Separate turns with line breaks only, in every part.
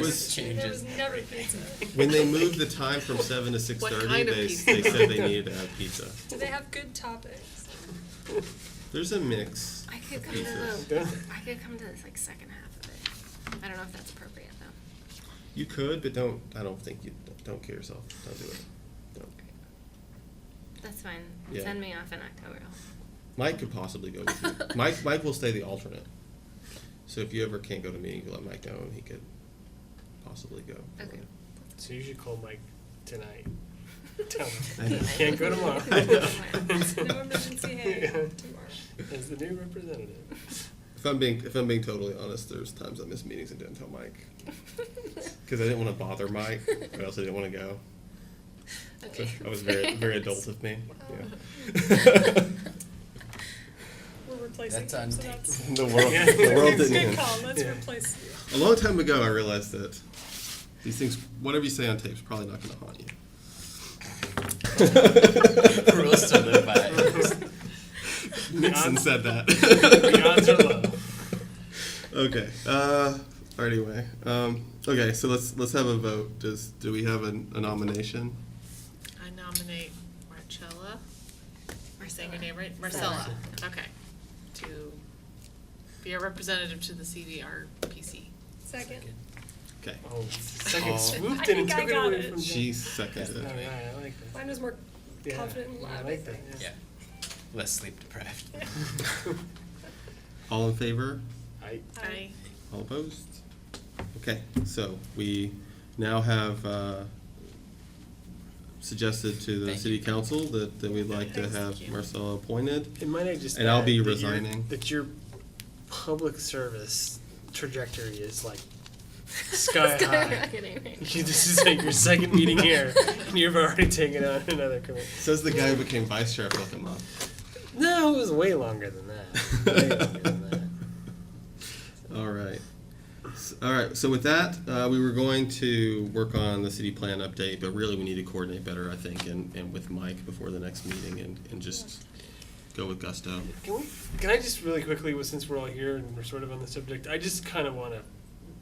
was
There was
changes.
never pizza.
when they moved the time from seven to six
What
thirty.
kind of
they,
pizza?
they said they needed to have pizza.
Do they have good toppings?
There's a mix.
I could
of
come to
pizzas.
the, I could come to this like second half of it. I don't know if that's appropriate though.
You could, but don't. I don't think you don't kill yourself. Don't do it. Don't.
That's fine.
Yeah.
Send me off in October.
Mike could possibly go with you. Mike Mike will stay the alternate. So if you ever can't go to meetings, you let Mike know and he could possibly go.
Okay.
So you should call Mike tonight. Tell
I know.
him. Can't go tomorrow.
I know.
No emergency hangout tomorrow.
As the new representative.
If I'm being if I'm being totally honest, there's times I miss meetings and didn't tell Mike because I didn't want to bother Mike, but I also didn't want to go. So
Okay.
I was very very adult of me. Yeah.
Nice.
We're replacing
That's
him,
on
so
tape.
that's.
the world
Yeah.
the world didn't
Good
end.
call, let's
Yeah.
replace you.
A long time ago, I realized that these things, whatever you say on tape, is probably not going to haunt you.
Rules to live by.
Nixon said that.
The odds are low.
Okay. Uh, anyway, um, okay. So let's let's have a vote. Does do we have a, a nomination?
I nominate Marcella. Am I saying your name right?
Marcella.
Marcella, okay. To be a representative to the CDRPC.
Second.
Okay.
Oh, second
Oh.
I
swooped in and
think I
took it
got
away
it.
from Jen.
She
Oh,
seconded. it.
yeah, I like that.
Mine was more
Yeah,
confident and
I
loud, I
like that,
think.
Yeah. Less sleep deprived.
All in favor?
I,
I,
All opposed? Okay. So we now have uh, suggested to the
Thank
city
you.
council that, that we'd like to
Thank
have
you.
Marcella appointed.
and might I just
And I'll
add
be
that your-
resigning.
that your public service trajectory is like sky high. You- This is like your second meeting here, and you've already taken on another commitment.
Says the guy who became vice sheriff looking month.
No, it was way longer than that. Way longer than that.
All right. S- All right. So with that, uh, we were going to work on the city plan update, but really we need to coordinate better, I think, and, and with Mike before the next meeting and, and just go with gusto.
Can we? Can I just really quickly, well, since we're all here and we're sort of on the subject, I just kind of want to.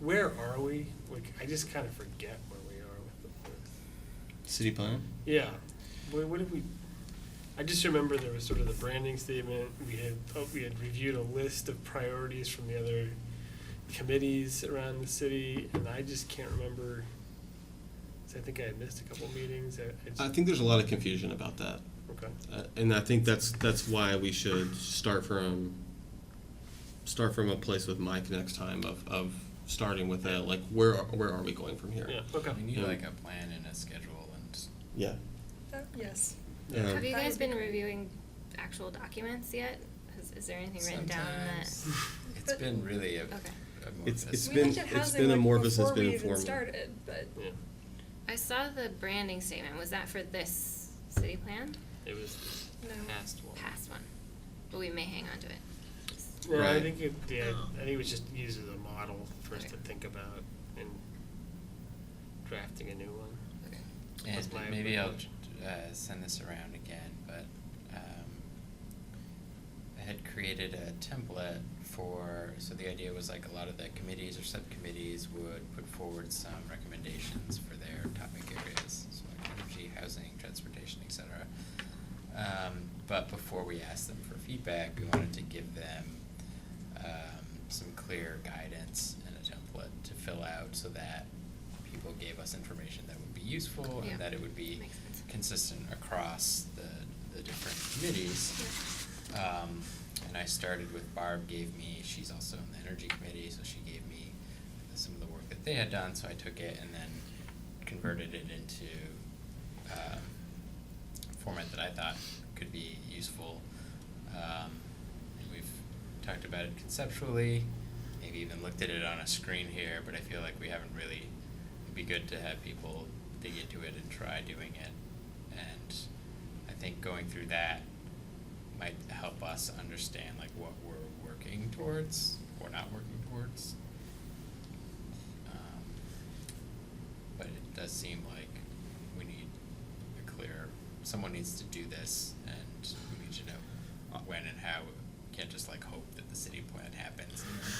Where are we? Like, I just kind of forget where we are with the.
City plan?
Yeah. What, what did we? I just remember there was sort of the branding statement. We had oh, we had reviewed a list of priorities from the other committees around the city, and I just can't remember. 'cause I think I had missed a couple meetings. I, I just,
I think there's a lot of confusion about that.
okay.
Uh, and I think that's that's why we should start from start from a place with Mike next time of, of starting with a like where are, where are we going from here?
Yeah. Okay.
We need like a plan and a schedule and
Yeah.
Uh, Yes.
Um,
Have you
That
guys
would be
been
great.
reviewing actual documents yet? Is, is there anything written down
sometimes.
that?
It's been really a.
Okay.
a more
It's-
of a
it's
We
been-
looked at housing,
been
like,
amorphous, it's
before
been
we even
informal.
started, but
Yeah.
I saw the branding statement. Was that for this city plan?
It was
no.
the past one.
Past one. But we may hang on to it.
No, I
Right.
think it, yeah,
Oh.
I think it was just used as a model for us to
Okay.
think about in drafting a new one.
Okay.
That's
And
my
maybe I'll
approach.
uh, send this around again, but um, I had created a template for, so the idea was like a lot of the committees or subcommittees would put forward some recommendations for their topic areas, so like energy, housing, transportation, et cetera. Um, but before we asked them for feedback, we wanted to give them um, some clear guidance and a template to fill out so that people gave us information that would be useful
Yeah.
and that it would be
Makes sense.
consistent across the, the different committees. Um, and I started with Barb gave me, she's also in the energy committee, so she gave me some of the work that they had done, so I took it and then converted it into, um, format that I thought could be useful. Um, and we've talked about it conceptually, maybe even looked at it on a screen here, but I feel like we haven't really, it'd be good to have people dig into it and try doing it. And I think going through that might help us understand like what we're working towards or not working towards. Um, but it does seem like we need a clear, someone needs to do this and we need to know when and how. We Can't just like hope that the city plan happens and then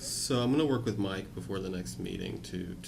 So I'm gonna work with Mike before the next meeting to,